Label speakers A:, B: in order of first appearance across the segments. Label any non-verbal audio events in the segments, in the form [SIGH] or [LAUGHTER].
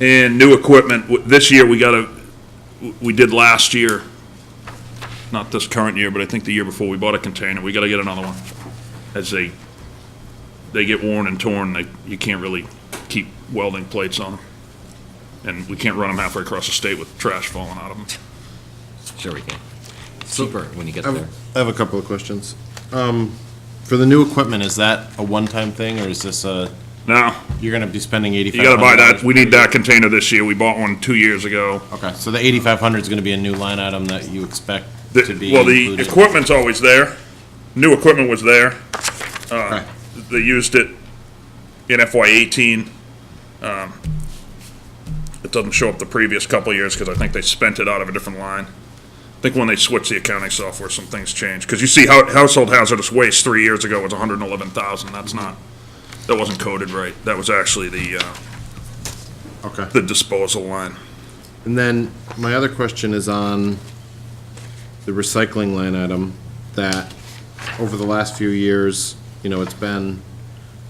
A: And new equipment, w- this year, we got a, we did last year, not this current year, but I think the year before, we bought a container, we gotta get another one. As they, they get worn and torn, they, you can't really keep welding plates on them. And we can't run them halfway across the state with trash falling out of them.
B: Sure we can. Cheaper when you get
C: I have-
B: there.
C: I have a couple of questions. Um, For the new equipment, is that a one-time thing, or is this a,
A: Now,
C: you're gonna be spending
A: you
C: eighty-five
A: gotta
C: hundred?
A: buy that, we need that container this year, we bought one two years ago.
C: Okay, so the eighty-five hundred is gonna be a new line item that you expect
A: The-
C: to be
A: Well, the
C: included?
A: equipment's always there, new equipment was there.
C: Right.
A: they used it in FY eighteen. Um, It doesn't show up the previous couple of years, because I think they spent it out of a different line. I think when they switched the accounting software, some things changed, because you see how household hazardous waste three years ago was hundred and eleven thousand, that's not, that wasn't coded right, that was actually the, uh,
C: Okay.
A: the disposal line.
C: And then my other question is on the recycling line item, that over the last few years, you know, it's been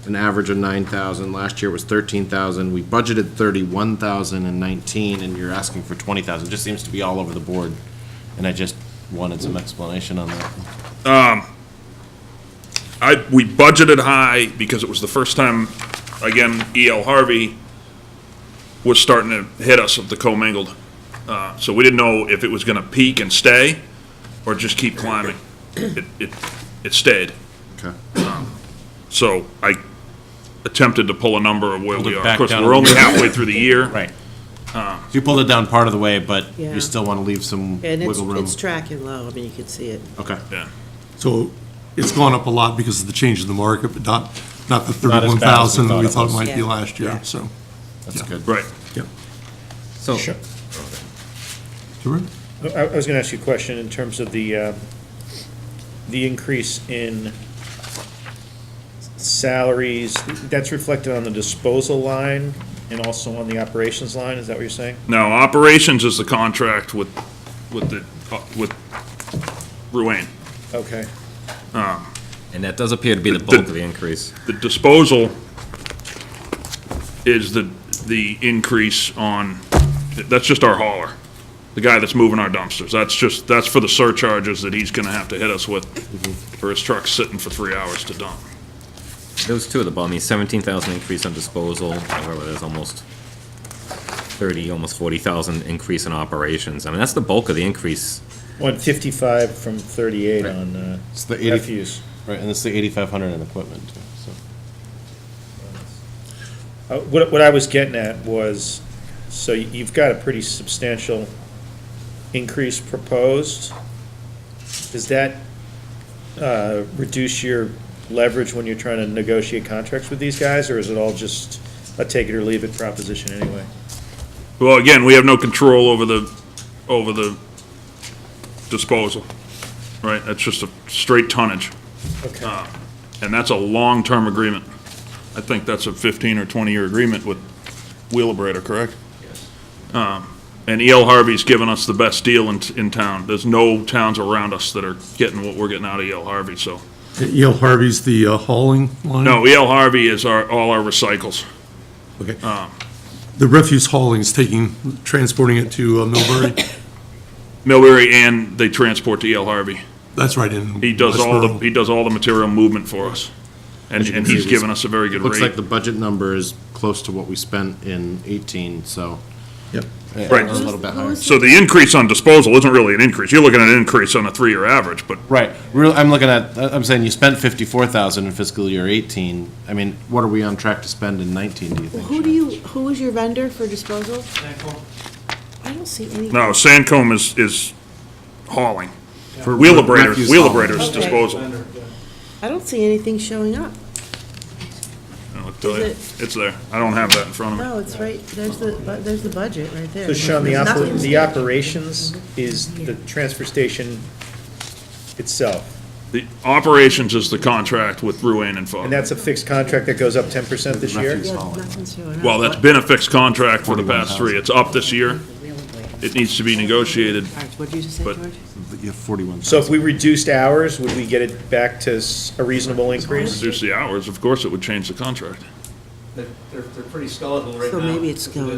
C: an average of nine thousand, last year was thirteen thousand, we budgeted thirty-one thousand and nineteen, and you're asking for twenty thousand, just seems to be all over the board, and I just wanted some explanation on that.
A: I, we budgeted high because it was the first time, again, E.L. Harvey was starting to hit us with the commingled. Uh, so we didn't know if it was gonna peak and stay or just keep climbing. It, it, it stayed.
C: Okay.
A: So I attempted to pull a number of where
C: Pulled
A: we
C: it
A: are. Of
C: back
A: course,
C: down a
A: we're only
C: little bit.
A: halfway through the year.
C: Right. So you pulled it down part of the way, but
D: Yeah.
C: you still want to leave some
D: And it's,
C: wiggle room?
D: it's tracking low, I mean, you can see it.
C: Okay.
A: Yeah.
E: So it's gone up a lot because of the change in the market, but not, not the
C: Not as fast as we
E: 31,000 that we
C: thought it
E: thought
C: was.
E: might be
D: Yeah.
E: last year,
D: Yeah.
E: so.
C: That's
E: Yeah.
C: good.
A: Right.
E: Yep.
B: So,
E: Sure.
F: I I was going to ask you a question in terms of the, uh, the increase in salaries. That's reflected on the disposal line and also on the operations line, is that what you're saying?
A: Now, operations is the contract with, with the, uh, with Ruane.
F: Okay.
B: and that does appear to be the bulk of the increase.
A: The disposal is the, the increase on, that's just our hauler, the guy that's moving our dumpsters. That's just, that's for the surcharges that he's gonna have to hit us with for his truck sitting for three hours to dump.
B: Those two at the bottom, the seventeen thousand increase on disposal, however, there's almost thirty, almost forty thousand increase in operations. I mean, that's the bulk of the increase.
F: 155 from 38 on uh,
C: It's the 80
F: refuse.
C: Right, and it's the eighty-five hundred in equipment, too, so.
F: Uh, What, what I was getting at was, so you- you've got a pretty substantial increase proposed. Does that uh, reduce your leverage when you're trying to negotiate contracts with these guys, or is it all just a take it or leave it proposition anyway?
A: Well, again, we have no control over the, over the disposal, right? That's just a straight tonnage,
F: Okay.
A: and that's a long-term agreement. I think that's a fifteen or twenty-year agreement with Wheelabrator, correct? Um, And E.L. Harvey's given us the best deal in, in town. There's no towns around us that are getting what we're getting out of E.L. Harvey, so.
E: E.L. Harvey's the uh, hauling line?
A: No, E.L. Harvey is our, all our recycles.
E: Okay. The refuse hauling is taking, transporting it to uh,
C: [COUGHS]
E: Millbury?
A: Millbury and they transport to E.L. Harvey.
E: That's right in.
A: He does all the,
E: Westboro.
A: he does all the material movement for us. And, and he's given us a very good
C: Looks like
A: rate.
C: the budget number is close to what we spent in eighteen, so.
E: Yep.
C: Yeah,
A: Right.
C: A little bit higher.
A: So the increase on disposal isn't really an increase. You're looking at an increase on a three-year average, but
C: Right, real, I'm looking at, I- I'm saying you spent fifty-four thousand in fiscal year eighteen, I mean, what are we on track to spend in nineteen, do you think?
D: Who do you, who was your vendor for disposal? I don't see any.
A: no, Sandcombe is, is hauling.
C: For
A: Wheelabrator,
C: refuse
A: Wheelabrator's
D: Okay.
A: disposal.
D: I don't see anything showing up.
A: I'll tell you.
D: Is
A: It's there. I don't have that in front of me.
D: No, Oh, it's right, there's the, bu- there's the budget right there.
F: So Sean, the, oper-
D: Nothing's-
F: the operations is the transfer station itself,
A: The operations is the contract with Ruane and Fogg.
F: and that's a fixed contract that goes up 10% this year?
D: Yeah, nothing's showing up.
A: Well, that's been a fixed contract for the past three. It's up this year. It needs to be negotiated.
D: All right, What'd you just say,
A: but-
D: George?
C: hauling. You have forty-one
F: So if
C: thousand.
F: we reduced hours, would we get it back to s- a reasonable increase?
A: Reduce the hours, of course, it would change the contract.
G: They're, they're they're pretty skeletal right
D: So
G: now.
D: maybe it's
G: That's what it
D: going
G: is.